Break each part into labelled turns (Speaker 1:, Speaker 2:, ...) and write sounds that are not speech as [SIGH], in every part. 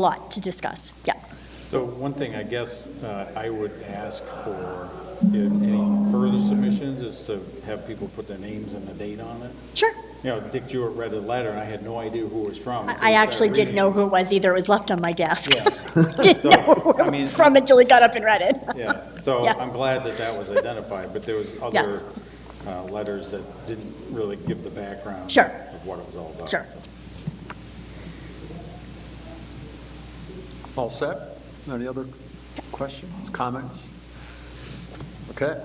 Speaker 1: lot to discuss, yeah.
Speaker 2: So one thing I guess uh, I would ask for in any further submissions is to have people put their names and the date on it.
Speaker 1: Sure.
Speaker 2: You know, Dick Jewett read a letter, and I had no idea who it was from. until
Speaker 1: I I
Speaker 2: started
Speaker 1: actually didn't
Speaker 2: reading
Speaker 1: know
Speaker 2: it.
Speaker 1: who it was either, it was left on my desk.
Speaker 2: Yeah.
Speaker 1: [LAUGHS]
Speaker 2: [LAUGHS]
Speaker 1: Didn't
Speaker 2: So,
Speaker 1: know who
Speaker 2: I
Speaker 1: it
Speaker 2: mean-
Speaker 1: was from until he got up and read it.
Speaker 2: Yeah, so
Speaker 1: Yeah.
Speaker 2: I'm glad that that was identified, but there was other uh, letters that didn't really give the background
Speaker 1: Sure.
Speaker 2: of what it was all
Speaker 1: [LAUGHS]
Speaker 2: about.
Speaker 1: Sure.
Speaker 3: All set? Any other questions, comments? Okay,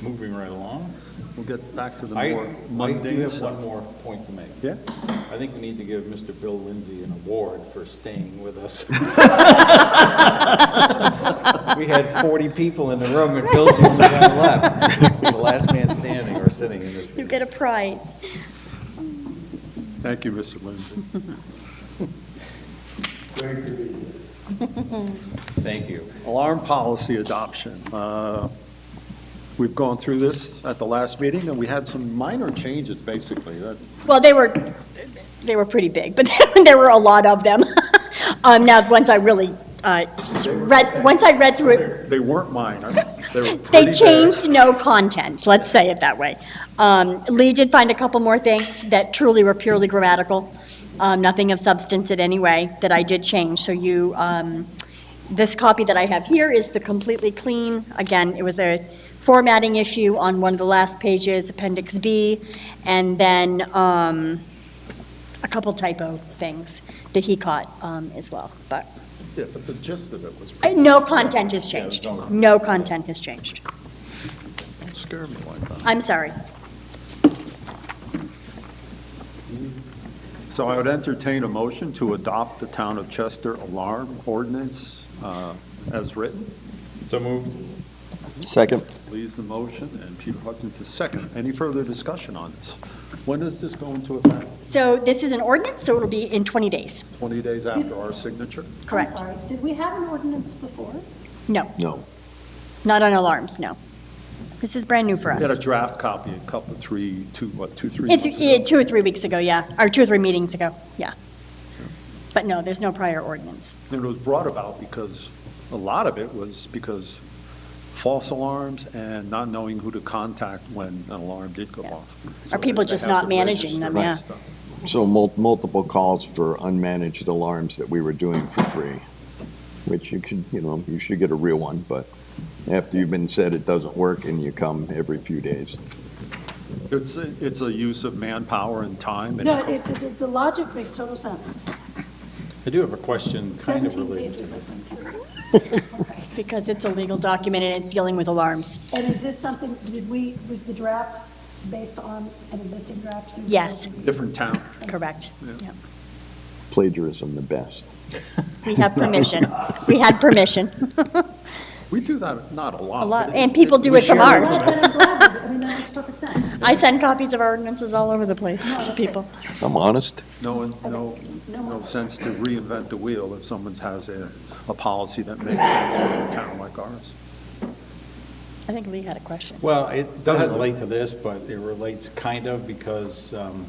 Speaker 2: Moving right along.
Speaker 3: we'll get back to the
Speaker 2: I,
Speaker 3: more
Speaker 2: I do
Speaker 3: mundane
Speaker 2: have one
Speaker 3: stuff.
Speaker 2: more point to make.
Speaker 3: Yeah?
Speaker 2: I think we need to give Mr. Bill Lindsay an award for staying with us. We had 40 people in the room, and Bill's the only one left. He's The last man standing or sitting in this.
Speaker 1: You get a prize.
Speaker 3: Thank you, Mr. Lindsay.
Speaker 2: Thank you.
Speaker 3: [LAUGHS] Alarm policy adoption. Uh, We've gone through this at the last meeting, and we had some minor changes, basically. That's,
Speaker 1: Well, they were, they were pretty big, but [LAUGHS] there were a lot of them. [LAUGHS] Um, now, once I really, uh, read, once I read through it,
Speaker 3: they weren't minor. They were pretty
Speaker 1: they
Speaker 3: big.
Speaker 1: changed no content, let's say it that way. Um, Lee did find a couple more things that truly were purely grammatical, um, nothing of substance in any way that I did change. So you, um, this copy that I have here is the completely clean, again, it was a formatting issue on one of the last pages, Appendix B, and then um, a couple typo things that he caught um, as well, but
Speaker 3: Yeah, but the gist of it was
Speaker 1: uh, no content has changed. No content has changed.
Speaker 3: Don't scare me like that.
Speaker 1: I'm sorry.
Speaker 3: So I would entertain a motion to adopt the Town of Chester alarm ordinance uh, as written.
Speaker 2: So moved.
Speaker 4: Second.
Speaker 3: Lee's the motion, and Peter Hudson's the second. Any further discussion on this? When does this go into effect?
Speaker 1: So this is an ordinance, so it'll be in 20 days,
Speaker 3: 20 days after our signature?
Speaker 1: correct?
Speaker 5: I'm sorry, did we have an ordinance before?
Speaker 1: No,
Speaker 4: No.
Speaker 1: not on alarms, no. This is brand new for
Speaker 3: We had a
Speaker 1: us.
Speaker 3: draft copy a couple, three, two, what, two, three
Speaker 1: It's
Speaker 3: months
Speaker 1: eh,
Speaker 3: ago?
Speaker 1: two or three weeks ago, yeah, or two or three meetings ago, yeah. But no, there's no prior ordinance.
Speaker 3: And it was brought about because, a lot of it was because false alarms and not knowing who to contact when an alarm did go
Speaker 1: Yeah.
Speaker 3: off.
Speaker 1: Or people just not managing them, yeah.
Speaker 4: So mul- multiple calls for unmanaged alarms that we were doing for free, which you could, you know, you should get a real one, but after you've been said it doesn't work and you come every few days.
Speaker 3: It's, a- it's a use of manpower and time. and
Speaker 5: No, it, it- the logic makes total sense.
Speaker 2: I do have a question kind of
Speaker 5: 17
Speaker 2: related.
Speaker 5: pages, I think.
Speaker 1: Because it's a legal document and it's dealing with alarms.
Speaker 5: And is this something, did we, was the draft based on an existing draft? you
Speaker 1: Yes.
Speaker 5: guys did?
Speaker 3: Different town.
Speaker 1: Correct. Yeah.
Speaker 4: Plagiarism the best.
Speaker 1: We have permission. We had permission.
Speaker 3: We do that, not a lot.
Speaker 1: A lot,
Speaker 3: but
Speaker 1: and people do
Speaker 3: we
Speaker 1: it from
Speaker 3: share
Speaker 1: ours.
Speaker 5: Well, then I'm glad, that- I mean, that makes perfect sense.
Speaker 1: I send copies of our ordinances all over the place to people.
Speaker 4: I'm honest.
Speaker 3: No, no, no sense to reinvent the wheel if someone has a, a policy that makes sense for a town like ours.
Speaker 1: I think Lee had a question.
Speaker 2: Well, it doesn't relate to this, but it relates kind of because um,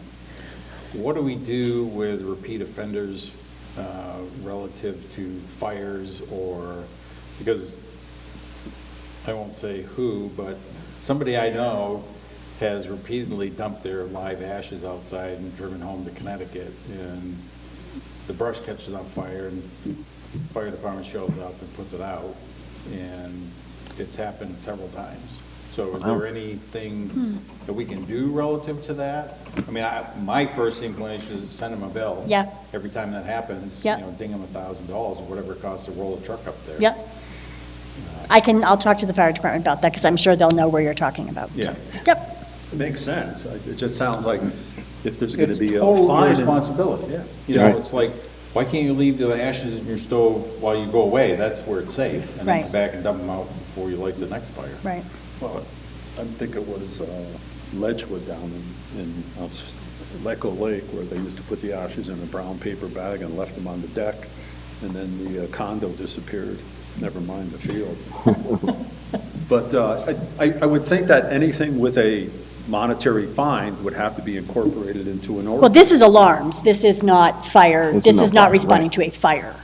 Speaker 2: what do we do with repeat offenders uh, relative to fires or, because I won't say who, but somebody I know has repeatedly dumped their live ashes outside and driven home to Connecticut, and the brush catches on fire, and fire department shows up and puts it out, and it's happened several times. So is there
Speaker 1: Hmm.
Speaker 2: anything that we can do relative to that? I mean, I, my first inclination is send them a bill.
Speaker 1: Yeah.
Speaker 2: Every time that happens.
Speaker 1: Yeah.
Speaker 2: You know, ding them a thousand dollars, or whatever it costs to roll a truck up there.
Speaker 1: Yep. I can, I'll talk to the fire department about that, because I'm sure they'll know where you're talking about.
Speaker 3: Yeah.
Speaker 1: Yep,
Speaker 3: It makes sense. It just sounds like if there's going to
Speaker 2: It's
Speaker 3: be a
Speaker 2: total your
Speaker 3: fine. and-
Speaker 2: responsibility.
Speaker 3: Yeah.
Speaker 2: uh, You know,
Speaker 4: Right.
Speaker 2: it's like, why can't you leave the ashes in your stove while you go away? That's where it's safe. And then
Speaker 1: Right.
Speaker 2: come back and dump them out before you light the next fire.
Speaker 1: right.
Speaker 3: Well, I think it was uh, Ledgewood down in, in outs- Lecco Lake where they used to put the ashes in a brown paper bag and left them on the deck, and then the uh, condo disappeared, never mind the field. But uh, I, I I would think that anything with a monetary fine would have to be incorporated into an ordinance.
Speaker 1: Well, this is alarms. This is not fire.
Speaker 4: It's
Speaker 1: This
Speaker 4: not
Speaker 1: is not
Speaker 4: fire,
Speaker 1: responding
Speaker 4: right.
Speaker 1: to a fire.